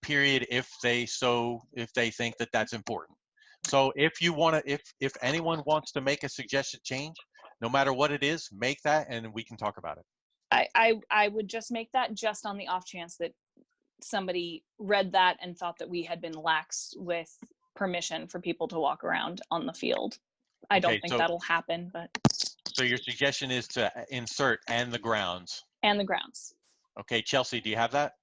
period if they so, if they think that that's important. So if you want to, if, if anyone wants to make a suggested change, no matter what it is, make that and we can talk about it. I, I, I would just make that just on the off chance that somebody read that and thought that we had been lax with permission for people to walk around on the field. I don't Okay, think so- that'll happen, but, So your suggestion is to uh, insert and the grounds. and the grounds. Okay, Chelsea, do you have that?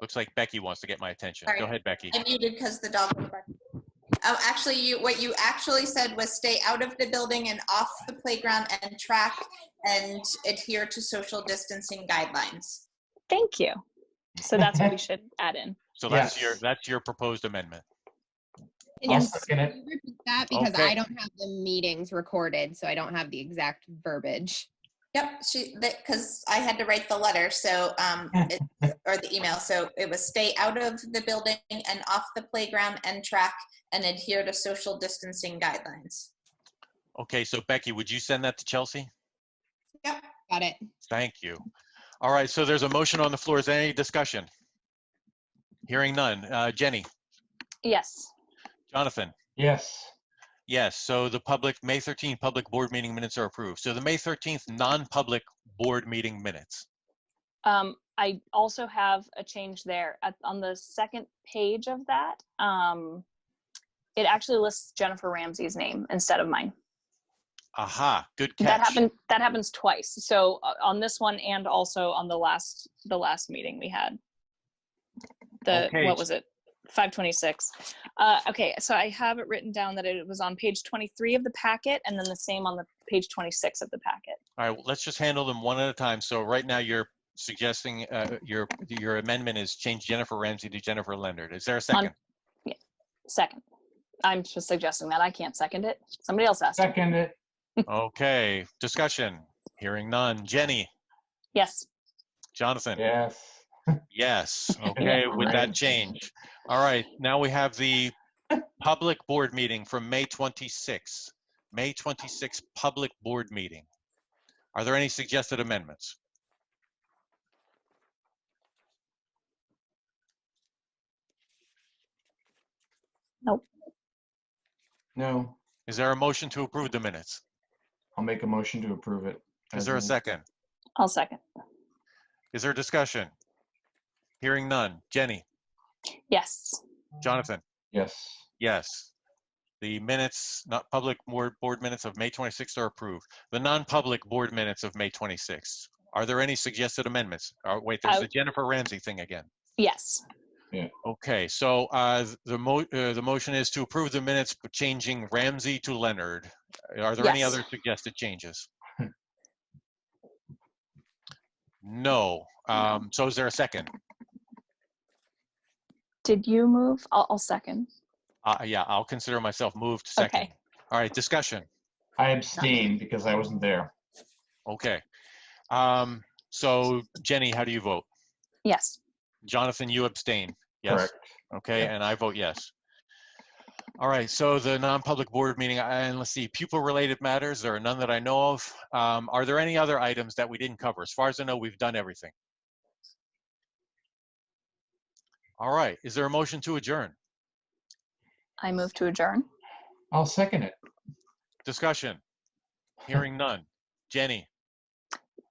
Looks like Becky wants to get my attention. Sorry. Go ahead, Becky. I muted because the dog. was barking. Um, actually, you, what you actually said was stay out of the building and off the playground and track and adhere to social distancing guidelines. Thank you. So that's what we should add in. So that's Yes. your, that's your proposed amendment. Can I'll you second it. can you repeat that? Because Okay. I don't have the meetings recorded, so I don't have the exact verbiage. Yep, she, that, because I had to write the letter, so, um, it- or the email, so it was stay out of the building and off the playground and track and adhere to social distancing guidelines. Okay, so Becky, would you send that to Chelsea? Got it. Thank you. All right, so there's a motion on the floor. Is there any discussion? Hearing none. Uh, Jenny, Yes. Jonathan? Yes. Yes, so the public, May 13th, public board meeting minutes are approved. So the May 13th, non-public board meeting minutes. Um, I also have a change there at, on the second page of that. Um, it actually lists Jennifer Ramsey's name instead of mine. Aha, good That catch. happened. That happens twice. So uh, on this one, and also on the last the last meeting we had. The Okay. what was it? Five twenty six. Uh, okay, so I have it written down that it was on page twenty three of the packet, and then the same on the page twenty six of the packet. All right, well, let's just handle them one at a time. So right now, you're suggesting, uh, your, your amendment is change Jennifer Ramsey to Jennifer Leonard. Is there a second? Second, I'm just suggesting that I can't second it. Somebody else asked. it. Second it. Okay, discussion. Hearing none. Jenny, Yes. Jonathan? Yes. Yes, okay, with that Right. change. All right, now we have the public board meeting from May 26. May 26, public board meeting. Are there any suggested amendments? No. Is there a motion to approve the minutes? I'll make a motion to approve it. Is there a second? I'll second. Is there discussion? Hearing none. Jenny, Yes. Jonathan, Yes. yes. The minutes, not public board, board minutes of May 26 are approved. The non-public board minutes of May 26. Are there any suggested amendments? Oh, wait, there's I- the Jennifer Ramsey thing again. Yes. Okay, so uh, th- the mo, uh, the motion is to approve the minutes, but changing Ramsey to Leonard. Are there any Yes. other suggested changes? No. Um, So is there a second? Did you move? I'll, I'll second. Uh, Yeah, I'll consider myself moved second. Okay. All right, discussion. I abstain because I wasn't there. Okay. Um, So Jenny, how do you vote? Yes. Jonathan, you abstain? Yes. Correct. Okay, Yeah. and I vote yes. All right, so the non-public board meeting, and let's see, pupil-related matters, there are none that I know of. Um, Are there any other items that we didn't cover? As far as I know, we've done everything. All right, is there a motion to adjourn? I move to adjourn. I'll second it. Discussion? Hearing none. Jenny?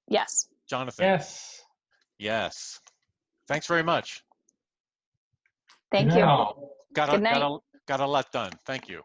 Yes. Jonathan? Yes. Yes. Thanks very much. Thank you. Now. Got a, Good got a, got a lot done. Thank you.